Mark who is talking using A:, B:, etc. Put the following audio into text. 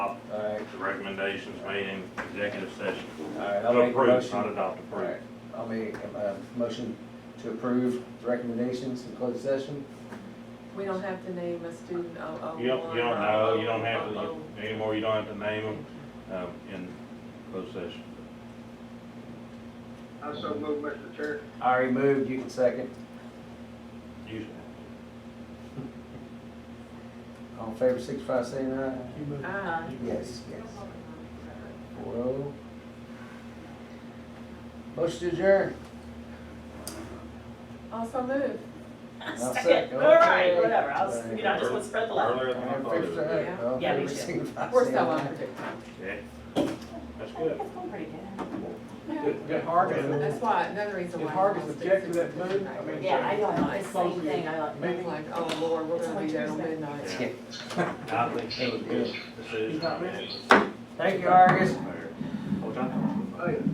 A: All
B: Alright,
A: the recommendations made in executive session.
B: alright, I'll make a
A: Approve, not
B: motion.
A: adopt, approve.
B: Alright, I'll make a uh, motion to approve the recommendations in closed session.
C: We don't have to name a student oh, oh,
A: You don't,
C: one,
A: you don't
C: oh,
A: know, you don't have
C: oh,
A: to, anymore, you don't have to name them, um, in closed session.
D: I so move, Mr. Chair.
B: I already moved, you can second.
A: You-
B: All in favor, signify by saying aye.
C: oh. Ah.
B: Yes, yes. Four oh. Motion to adjourn.
C: Also move.
B: I'll
E: Second, all right, whatever, I was, you know, I just want to spread the love.
A: Earlier than
B: All
A: I
B: in
A: thought it
B: favor,
A: would
B: say
A: be.
B: aye. All in
E: Yeah, me
B: favor,
E: too.
B: signify by
C: We're
B: saying
C: so
B: aye.
C: unpredictable.
A: Yeah, that's
E: I think
A: good.
E: it's going pretty good.
F: Did did Hargis,
C: That's why, another reason
F: Did
C: why.
F: Hargis
C: I'm gonna
F: object to
C: stick
F: that move? I mean-
E: Yeah, I don't know, it's the same
F: Supposedly
E: thing, I like.
C: It's Like, oh Lord, we're gonna be there till midnight.
A: Yeah. I think that was a good decision.
F: He's not ready.
B: Thank you, Argus.
A: Hold on.